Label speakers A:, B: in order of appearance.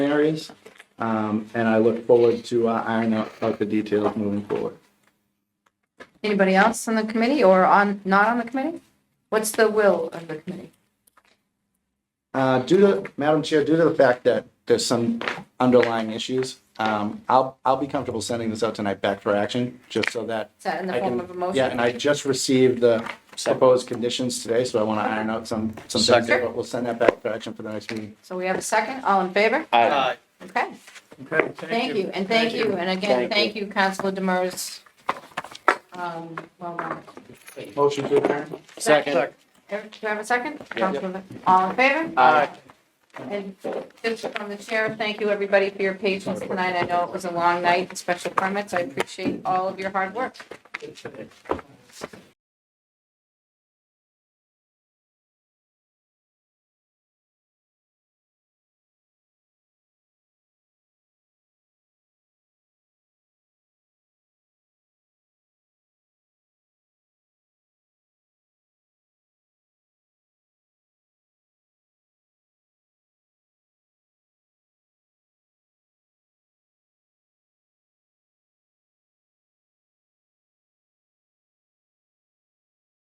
A: areas. Um, and I look forward to uh, ironing out out the details moving forward.
B: Anybody else on the committee or on, not on the committee? What's the will of the committee?
A: Uh, due to, Madam Chair, due to the fact that there's some underlying issues, um, I'll, I'll be comfortable sending this out tonight back for action, just so that.
B: Is that in the
A: I
B: form
A: can-
B: of a motion?
A: Yeah, and I just received the proposed conditions today, so I want to iron out some, some things,
B: Second.
A: but we'll send that back for action for the next meeting.
B: So we have a second, all in favor?
C: Aye.
B: Okay,
C: Okay,
B: thank you, and thank you, and again,
C: Thank
B: thank you, Councilor Demers. Um, well done.
A: Motion to adjourn?
C: Second.
B: Eric, Do you have a second? Councilor, all in favor?
C: Aye.
B: And just from the chair, thank you, everybody, for your patience tonight. I know it was a long night, and special permits, I appreciate all of your hard work.